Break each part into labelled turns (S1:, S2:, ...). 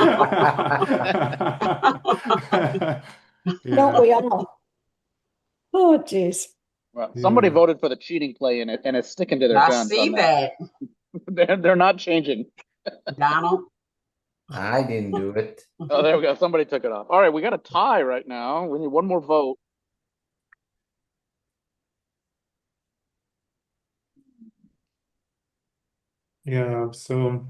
S1: Don't we all? Oh, geez.
S2: Well, somebody
S3: Yeah.
S2: voted for the cheating play and it, and it's sticking to their
S4: I
S2: guns.
S4: see
S2: on that.
S4: that,
S2: They're, they're not changing.
S4: Donald.
S5: I didn't do it.
S2: Oh, there we go. Somebody took it off. All right, we got a tie right now. We need one more vote.
S3: Yeah, so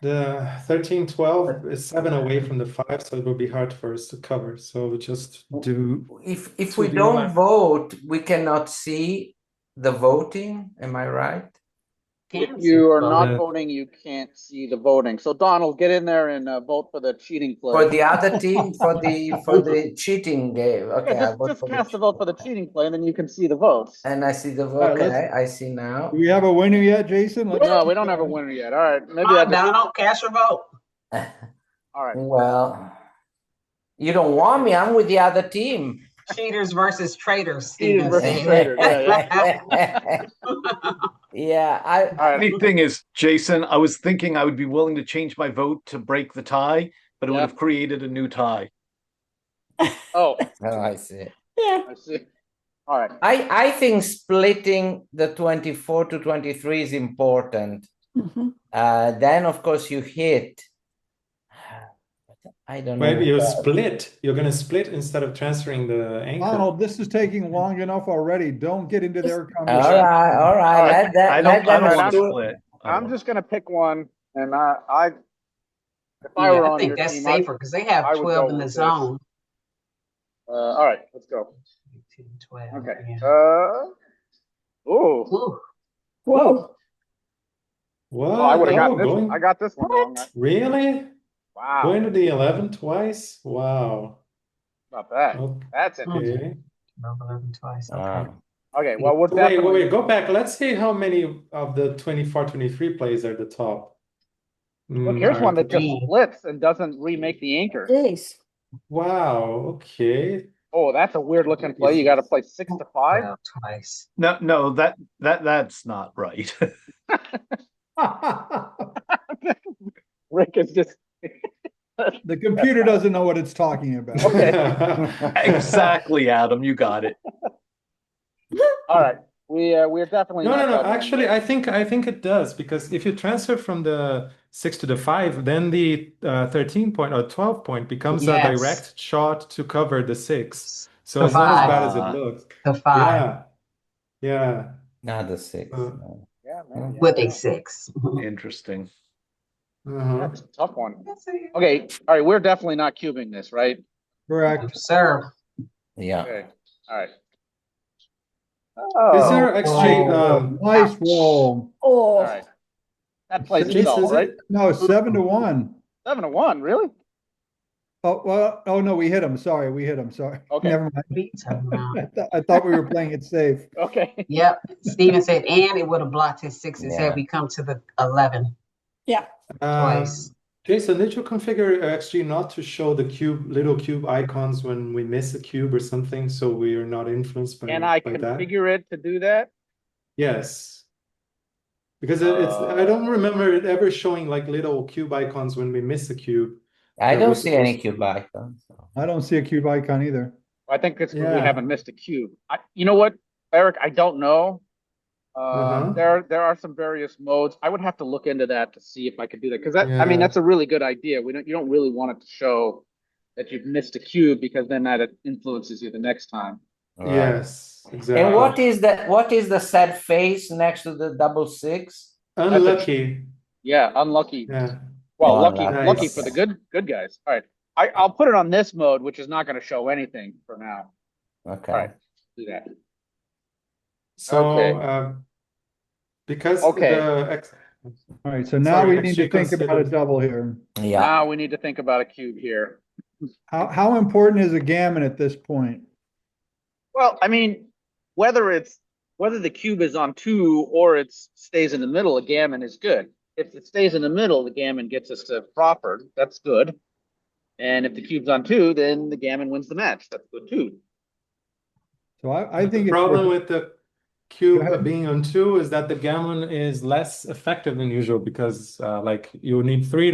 S3: the thirteen twelve is seven away from the five, so it will be hard for us to cover. So we just do
S5: If if
S3: So
S5: we
S3: do you
S5: don't
S3: want-
S5: vote, we cannot see the voting. Am I right?
S2: If
S4: Kansas.
S2: you are
S3: Yeah.
S2: not voting, you can't see the voting. So Donald, get in there and uh, vote for the cheating play.
S5: For the other team, for the for the cheating game. Okay,
S2: Yeah,
S5: I vote
S2: just
S5: for
S2: just
S5: the
S2: cast a vote for the cheating play and then you can see the votes.
S5: And I see the vote.
S3: Alright, let's-
S5: Okay, I see now.
S6: Do we have a winner yet, Jason? Let's-
S2: No, we don't have a winner yet. All right, maybe
S4: Come
S2: I
S4: on,
S2: just,
S4: Donald, cast your vote.
S2: all right.
S5: Well, you don't want me. I'm with the other team.
S4: Cheaters versus traitors.
S2: Cheaters
S4: Stephen
S2: versus
S4: said.
S2: traitors, yeah,
S5: yeah, I
S2: All right.
S7: Funny thing is, Jason, I was thinking I would be willing to change my vote to break the tie, but it
S2: Yeah.
S7: would have created a new tie.
S2: Oh,
S5: oh, I see.
S1: Yeah,
S2: I see. All right.
S5: I I think splitting the 24 to 23 is important.
S1: Mhm.
S5: Uh, then of course you hit. I don't know.
S3: maybe you split. You're gonna split instead of transferring the anchor.
S6: Donald, Oh, this is taking long enough already. Don't get into their
S5: All
S6: conversation.
S5: right, all right.
S2: Alright,
S5: Let that,
S7: I
S5: let
S7: don't, I
S5: them
S7: don't want to
S5: do-
S7: split. I
S2: I'm
S7: don't-
S2: just gonna pick one and I, I, if I were
S4: I
S2: on
S4: think
S2: your
S4: that's
S2: team, I'd,
S4: safer because they
S2: I
S4: have
S2: would go
S4: twelve in
S2: with
S4: the
S2: this.
S4: zone.
S2: uh, all right, let's go.
S4: 12,
S2: Okay,
S4: yeah.
S2: uh,
S3: Oh,
S2: ooh.
S4: Ooh,
S1: whoa,
S3: What?
S2: Oh, I would have
S3: Oh,
S2: gotten this,
S3: going-
S2: I got Ah. this one wrong.
S1: What?
S3: Really?
S2: Wow,
S3: Going to the eleven twice? Wow.
S2: not bad.
S3: Okay.
S2: That's it.
S3: Wait,
S4: twelve, eleven, twice. okay.
S5: Ah.
S2: Okay, well, we're
S3: wait,
S2: definitely,
S3: wait, go back. Let's see how many of the 24, 23 plays are the top.
S2: look,
S3: Mm,
S2: here's
S3: are
S2: one
S3: the
S2: that just
S4: Mm.
S2: splits and doesn't remake the anchor.
S1: geez.
S3: Wow, okay.
S2: Oh, that's a weird looking play. You gotta play six to five.
S4: Twelve Twice.
S7: No, no, that, that, that's not right.
S2: Rick is just,
S6: The computer doesn't know what it's talking
S3: Oh.
S6: about.
S7: Exactly, Adam, you got it.
S2: all right, we, uh, we're definitely.
S3: No,
S2: not
S3: no, no.
S2: covering
S3: Actually,
S2: this.
S3: I think I think it does because if you transfer from the six to the five, then the uh, 13 point or 12 point becomes a
S4: Yes.
S3: direct shot to cover the six. So
S4: The
S3: it's not as bad as
S7: five.
S3: it looks.
S4: The five
S3: Yeah. Yeah.
S5: Not the six.
S3: Uh,
S5: no.
S2: Yeah, man,
S4: with
S2: yeah.
S4: a six.
S7: Interesting.
S3: Uh-huh.
S2: That's a tough one. Okay, all right, we're definitely not cubing this, right?
S6: Correct.
S4: Sir,
S5: Yeah.
S2: Okay, all right.
S3: Is
S2: Oh,
S3: there actually um
S6: Nice roll.
S2: all
S1: Oh,
S2: right. That plays
S3: Six,
S2: it all,
S3: is it?
S2: right?
S6: No, seven to one.
S2: Seven to one, really?
S6: Oh, well, oh no, we hit him. Sorry, we hit him. Sorry.
S2: Okay.
S6: Never
S4: beat him now.
S6: mind. I, th- I thought we were playing it safe.
S2: Okay.
S4: Yep, Steven said, and it would have blocked his sixes
S5: Yeah.
S4: had we come to the eleven
S3: um,
S4: twice.
S3: Jason, did you configure actually not to show the cube little cube icons when we miss a cube or something so we are not influenced by,
S2: Can I
S3: by that?
S2: configure it to do that?
S3: Yes. Because it- it's I don't
S2: Uh.
S3: remember it ever showing like little cube icons when we miss a cube.
S5: I
S3: That
S5: don't
S3: was
S5: see any
S3: supposed to be-
S5: cube icon. so.
S6: I don't see a cube icon either.
S2: I think it's 'cause we
S3: Yeah.
S2: haven't missed a cube. I, you know what, Eric, I don't know. Uh,
S3: Mhm.
S2: there, there are some various modes. I would have to look into that to see if I could do that, because that, I mean,
S3: Yeah.
S2: that's a really good idea. We don't, you don't really want it to show that you've missed a cube, because then that influences you the next time.
S5: Right.
S3: Yes,
S5: And what
S3: exactly.
S5: is that? What is the sad face next to the double six?
S3: Unlucky.
S2: Yeah, unlucky.
S3: Yeah.
S2: Well,
S5: Oh,
S2: lucky,
S5: nice.
S2: lucky for the good, good guys. All right, I, I'll put it on this mode, which is not going to show anything for now.
S5: Okay.
S2: Alright. Do that.
S3: So
S2: Okay.
S3: um because
S2: Okay.
S3: the ex-
S6: All right, so now
S3: Sorry,
S6: we need
S3: actually
S6: to think about a
S3: considered.
S6: double here.
S5: Yeah.
S2: Now we need to think about a cube here.
S6: How, how important is a gammon at this point?
S2: Well, I mean, whether it's whether the cube is on two or it stays in the middle, a gammon is good. If it stays in the middle, the gammon gets us to proper. That's good. And if the cube's on two, then the gammon wins the match. That's good too.
S6: So I, I
S3: the
S6: think it's
S3: problem
S6: worth-
S3: with the cube
S6: ahead.
S3: being on two is that the gammon is less effective than usual because uh, like you need three